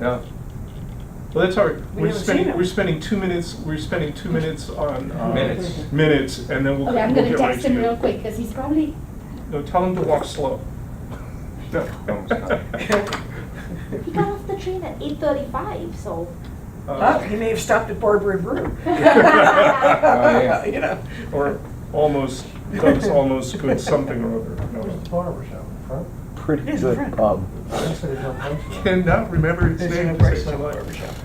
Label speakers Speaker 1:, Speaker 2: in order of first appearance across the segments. Speaker 1: Yeah. Well, that's all right.
Speaker 2: We
Speaker 1: We're
Speaker 2: haven't seen
Speaker 1: spending,
Speaker 2: him.
Speaker 1: we're spending two minutes, we're spending two minutes on. uh,
Speaker 3: Minutes.
Speaker 1: Minutes, and then we'll.
Speaker 4: Okay, I'm
Speaker 1: we'll
Speaker 4: gonna
Speaker 1: get right
Speaker 4: text
Speaker 1: to
Speaker 4: him
Speaker 1: you.
Speaker 4: real quick, because he's probably,
Speaker 1: No, tell him to walk slow. No.
Speaker 4: he got off the train at eight thirty-five, so.
Speaker 2: Huh?
Speaker 1: Uh,
Speaker 2: He may have stopped at Barbary Brew.
Speaker 3: yeah.
Speaker 2: You know.
Speaker 1: Or almost, Doug's almost good something or other. No,
Speaker 3: Where's the
Speaker 1: no.
Speaker 3: barber shop in front?
Speaker 5: pretty
Speaker 2: Here's the
Speaker 5: good
Speaker 2: front.
Speaker 5: pub.
Speaker 3: That's what it's on Front Street.
Speaker 1: Cannot remember his
Speaker 2: There's
Speaker 1: name.
Speaker 2: no
Speaker 1: to save
Speaker 2: place
Speaker 1: my
Speaker 2: like
Speaker 1: life.
Speaker 2: barber shop.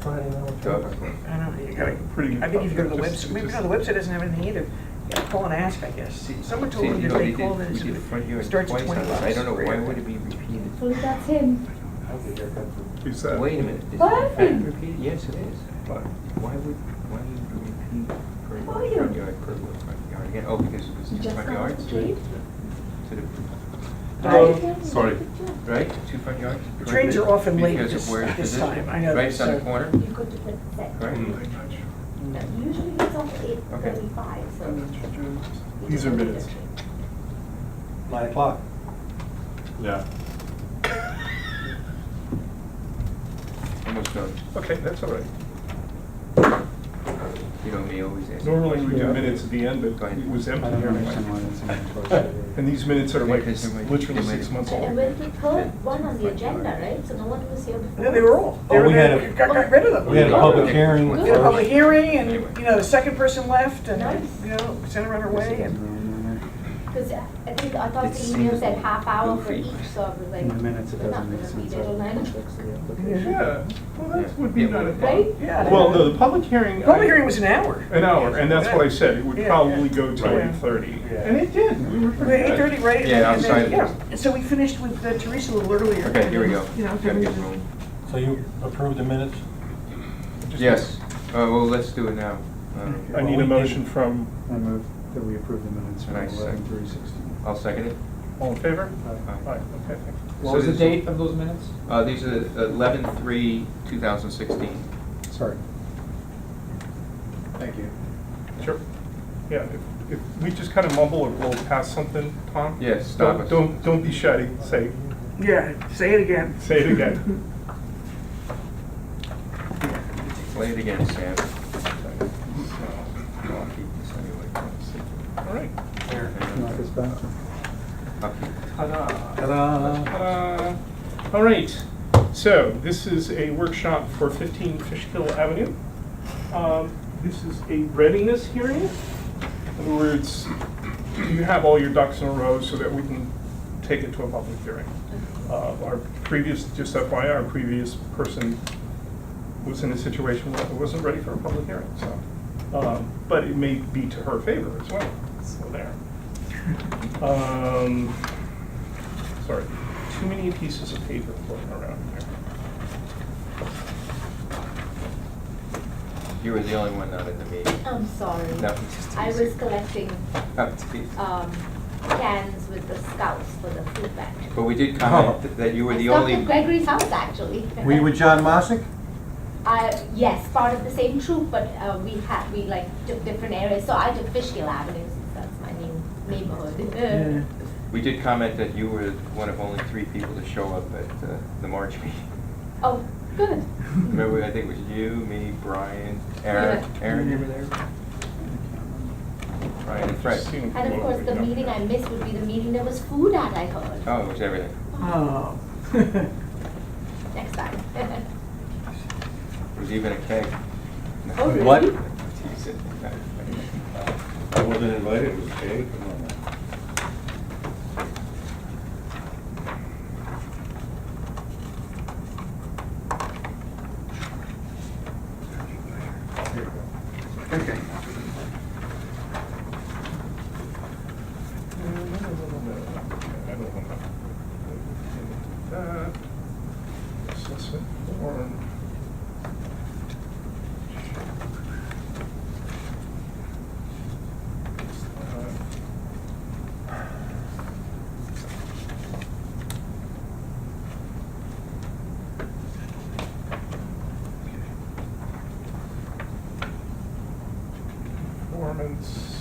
Speaker 3: Friday night.
Speaker 1: Doug.
Speaker 2: I don't know, you gotta,
Speaker 1: Pretty good
Speaker 2: I think if you go to the
Speaker 1: pub, just-
Speaker 2: website, maybe
Speaker 1: just-
Speaker 2: no, the website doesn't have anything either. You gotta call and ask, I guess. Someone told
Speaker 3: See,
Speaker 2: me
Speaker 3: you
Speaker 2: that
Speaker 3: know,
Speaker 2: they
Speaker 3: we did-
Speaker 2: called and
Speaker 3: we did it front here
Speaker 2: it starts at
Speaker 3: twice
Speaker 2: twenty
Speaker 3: now.
Speaker 2: bucks.
Speaker 3: I don't know, why would it be repeated?
Speaker 4: So that's him.
Speaker 3: I'll get your cut.
Speaker 1: Is that?
Speaker 3: Wait a minute. this-
Speaker 4: Perfect.
Speaker 3: repeated? Yes, it is.
Speaker 1: What?
Speaker 3: Why would, why would you repeat front
Speaker 4: Oh,
Speaker 3: yard,
Speaker 4: yeah.
Speaker 3: front yard, curb line, front yard again? Oh, because it was
Speaker 4: He
Speaker 3: two
Speaker 4: just
Speaker 3: front
Speaker 4: got off
Speaker 3: yards?
Speaker 4: the train.
Speaker 3: To the-
Speaker 1: Hello?
Speaker 4: Right.
Speaker 1: Sorry.
Speaker 3: Right, two front yards?
Speaker 2: Trains are often late
Speaker 3: Because
Speaker 2: this-
Speaker 3: of where it's
Speaker 2: this
Speaker 3: positioned.
Speaker 2: time, I
Speaker 3: Right,
Speaker 2: know that,
Speaker 3: it's on the
Speaker 2: so-
Speaker 3: corner,
Speaker 4: You go to the set.
Speaker 3: right?
Speaker 4: Usually it's off eight thirty-five, so. you
Speaker 1: These
Speaker 4: just
Speaker 1: are
Speaker 4: go to the
Speaker 1: minutes.
Speaker 4: train.
Speaker 3: Nine o'clock.
Speaker 1: Yeah.
Speaker 3: Almost done.
Speaker 1: Okay, that's all right.
Speaker 3: You know me, always ask.
Speaker 1: Normally we do minutes at the end, but it was empty here. And these minutes are like
Speaker 3: Because there might-
Speaker 1: literally
Speaker 3: there might-
Speaker 1: six months old.
Speaker 4: And when we put one on the agenda, right, so no one was here before.
Speaker 2: No, they were all, they
Speaker 6: Oh,
Speaker 2: were,
Speaker 6: we had
Speaker 2: there-
Speaker 6: a-
Speaker 2: got, got rid of them.
Speaker 6: We had a public hearing
Speaker 3: We
Speaker 4: had a
Speaker 2: We had a public
Speaker 6: first.
Speaker 2: hearing and,
Speaker 3: Anyway.
Speaker 2: you know, the second person left and,
Speaker 4: Nice.
Speaker 2: you know, sent her on her way and.
Speaker 4: Because I I think, I thought
Speaker 3: It
Speaker 4: the email
Speaker 3: seems
Speaker 4: said half hour for
Speaker 3: goofy.
Speaker 4: each, so I was like,
Speaker 6: In the minutes, it
Speaker 4: we're not
Speaker 6: doesn't
Speaker 4: gonna
Speaker 6: make
Speaker 4: be
Speaker 6: sense.
Speaker 4: there till nine o'clock.
Speaker 1: Yeah, well, that would be
Speaker 3: Yeah.
Speaker 1: not a
Speaker 4: Right?
Speaker 1: problem.
Speaker 2: Yeah.
Speaker 1: Well, no, the public hearing.
Speaker 2: Public hearing was an hour.
Speaker 1: An hour, and that's what I said, it would
Speaker 2: Yeah, yeah.
Speaker 1: probably go till
Speaker 2: Right.
Speaker 1: eight thirty.
Speaker 6: Yeah.
Speaker 1: And it did, we were
Speaker 2: We had
Speaker 1: pretty
Speaker 2: eight
Speaker 1: good.
Speaker 2: thirty, right?
Speaker 3: Yeah,
Speaker 2: And
Speaker 3: I'm
Speaker 2: then-
Speaker 3: sorry.
Speaker 2: yeah. And so we finished with uh, Teresa a little earlier.
Speaker 3: Okay, here we go.
Speaker 2: You know,
Speaker 3: Gotta get rolling.
Speaker 6: So you approved the minutes?
Speaker 1: Just-
Speaker 3: Yes, uh, well, let's do it now. Um,
Speaker 1: I need a motion from,
Speaker 6: I move that we approve the minutes from
Speaker 3: Nice.
Speaker 6: eleven three sixteen. Uh,
Speaker 3: I'll second it.
Speaker 1: all in favor? Aye,
Speaker 6: Aye.
Speaker 1: okay, thank you.
Speaker 3: So this-
Speaker 6: of those minutes?
Speaker 3: Uh, these are eleven three, two thousand sixteen.
Speaker 6: Sorry. Thank you.
Speaker 1: Sure. Yeah, if, if we just kind of mumble or roll past something, Tom?
Speaker 3: Yes, stop
Speaker 1: don't-
Speaker 3: us.
Speaker 1: Don't, don't be shy, say,
Speaker 2: Yeah, say it again.
Speaker 1: say it again.
Speaker 3: Play it again, Sam. I'll keep this anyway.
Speaker 1: All right.
Speaker 6: Knock this back.
Speaker 3: I'll keep it.
Speaker 1: Ta-da.
Speaker 6: Ta-da.
Speaker 1: Uh, All right, so this is a workshop for 15 Fishkill Avenue. Um, This is a readiness hearing. In other words, you have all your ducks in a row so that we can take it to a public hearing. Uh, Our previous, just FYI, our previous person was in a situation where it wasn't ready for a public hearing, so. um, But it may be to her favor as well, so there. Um, Sorry, too many pieces of paper floating around here.
Speaker 3: You were the only one not at the meeting.
Speaker 4: I'm sorry.
Speaker 3: No, just
Speaker 4: Um, I
Speaker 3: teasing.
Speaker 4: was collecting,
Speaker 3: I'm teasing.
Speaker 4: um, cans with the scouts for the food bank.
Speaker 3: But we did
Speaker 6: Oh.
Speaker 3: comment th- that you were the only.
Speaker 4: I stopped at Gregory's house, actually.
Speaker 6: We with John Mossick?
Speaker 4: Uh, yes, part of the same troop, but, uh, we had, we like took different areas, so I took Fishkill Avenue, since that's my name, neighborhood.
Speaker 3: We did comment that you were one of only three people to show up at uh, the March meeting.
Speaker 4: Oh, good.
Speaker 3: Remember, I think it was you, me, Brian, Aaron.
Speaker 4: Yeah.
Speaker 3: Aaron, you were there? Brian and Fred.
Speaker 1: Seeing
Speaker 4: And of
Speaker 1: what
Speaker 4: course,
Speaker 1: we
Speaker 4: the
Speaker 1: got
Speaker 4: meeting
Speaker 1: here.
Speaker 4: I missed would be the meeting there was food at, I heard,
Speaker 3: Oh, it was everything.
Speaker 2: Oh.
Speaker 4: next time.
Speaker 3: There was even a keg.
Speaker 4: Oh, really?
Speaker 5: What?
Speaker 3: Teasing.
Speaker 7: I wasn't invited, it was paid, come on now.
Speaker 3: Okay.
Speaker 1: I don't want to- That. Assessment form. Uh, Performance.